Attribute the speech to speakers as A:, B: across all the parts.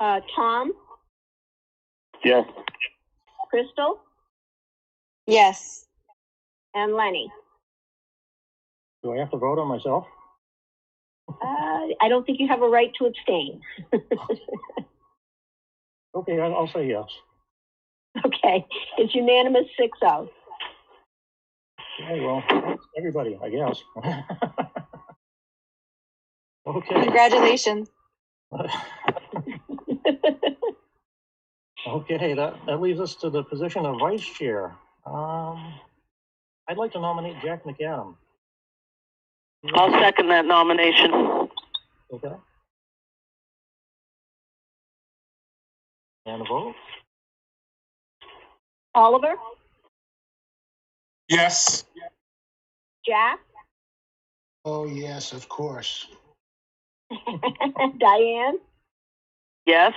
A: Uh, Tom,
B: Yes.
A: Crystal,
C: Yes.
A: and Lenny.
B: Do I have to vote on myself?
A: Uh, I don't think you have a right to abstain.
B: Okay, I'll, I'll say yes.
A: Okay, it's unanimous six oh.
B: Okay, well, everybody, I guess. Okay,
C: Congratulations.
B: okay, that, that leaves us to the position of vice chair. Um, I'd like to nominate Jack McAdam.
D: I'll second that nomination.
B: Okay. And a vote?
A: Oliver,
E: Yes.
A: Jack,
F: Oh, yes, of course.
A: Diane,
D: Yes?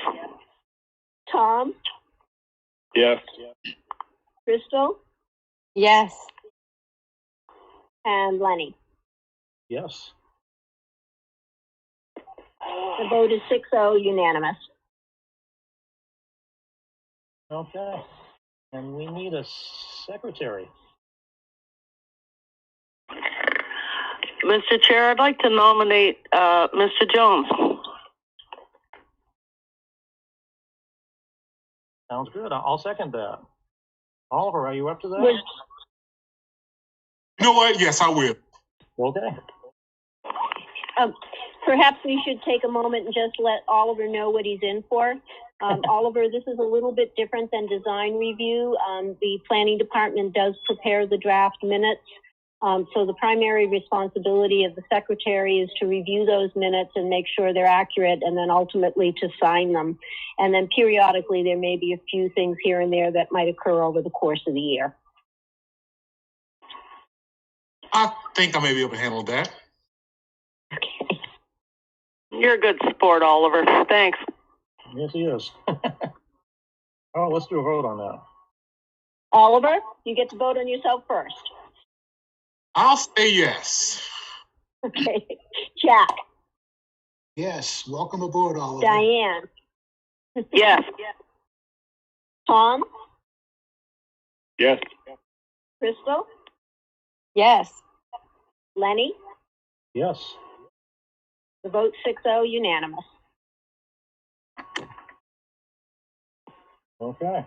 A: Tom,
B: Yes.
A: Crystal,
C: Yes.
A: and Lenny.
B: Yes.
A: The vote is six oh unanimous.
B: Okay, and we need a secretary.
D: Mr. Chair, I'd like to nominate, uh, Mr. Jones.
B: Sounds good. I- I'll second that. Oliver, are you up to
A: Was,
B: that?
E: You know what? Yes, I will.
B: Okay.
A: perhaps we should take a moment and just let Oliver know what he's in for. Um, Oliver, this is a little bit different than design review. Um, the planning department does prepare the draft minutes. Um, so the primary responsibility of the secretary is to review those minutes and make sure they're accurate and then ultimately to sign them. And then periodically, there may be a few things here and there that might occur over the course of the year.
E: I think I may be able to handle that.
D: You're a good sport, Oliver. Thanks.
B: Yes, he is. Oh, let's do a vote on that.
A: Oliver, you get to vote on yourself first.
E: I'll say yes.
A: Okay. Jack,
F: Yes, welcome aboard, Oliver.
A: Diane,
D: Yes.
A: Tom,
B: Yes.
A: Crystal,
C: Yes.
A: Lenny,
B: Yes.
A: the vote 6-0 unanimous.
B: Okay.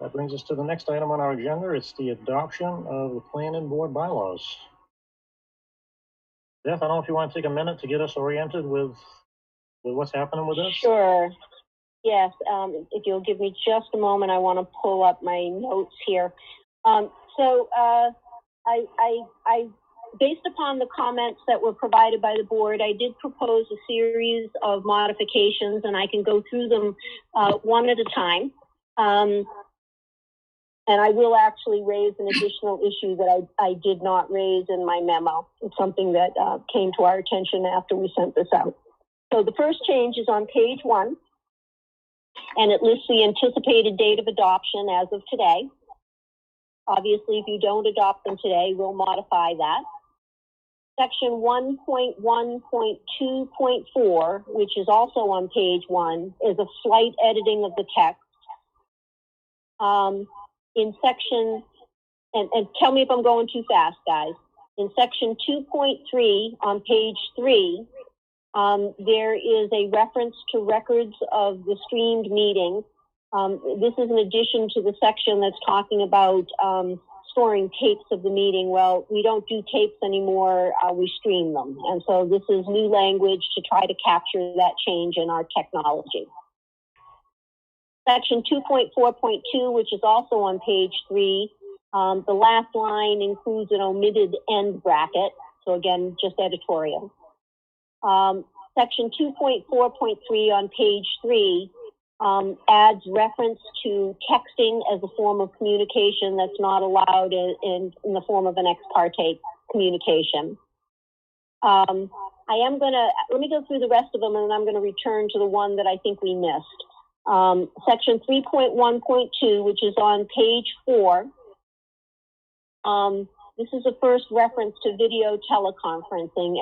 B: That brings us to the next item on our agenda. It's the adoption of the planning board bylaws. Beth, I don't know if you want to take a minute to get us oriented with, with what's happening with this?
A: Sure. Yes, um, if you'll give me just a moment, I want to pull up my notes here. Um, so, uh, I, I, I, based upon the comments that were provided by the board, I did propose a series of modifications and I can go through them, uh, one at a time. Um, and I will actually raise an additional issue that I, I did not raise in my memo. It's something that, uh, came to our attention after we sent this out. So the first change is on page one, and it lists the anticipated date of adoption as of today. Obviously, if you don't adopt them today, we'll modify that. Section 1.1.2.4, which is also on page one, is a slight editing of the text. Um, in section, and, and tell me if I'm going too fast, guys. In section 2.3 on page three, um, there is a reference to records of the streamed meeting. Um, this is an addition to the section that's talking about um, storing tapes of the meeting. Well, we don't do tapes anymore, uh, we stream them. And so this is new language to try to capture that change in our technology. Section 2.4.2, which is also on page three, um, the last line includes an omitted end bracket. So again, just editorial. Um, section 2.4.3 on page three, um, adds reference to texting as a form of communication that's not allowed in, in, in the form of an ex parte communication. Um, I am gonna, let me go through the rest of them and then I'm gonna return to the one that I think we missed. Um, section 3.1.2, which is on page four. Um, this is the first reference to video teleconferencing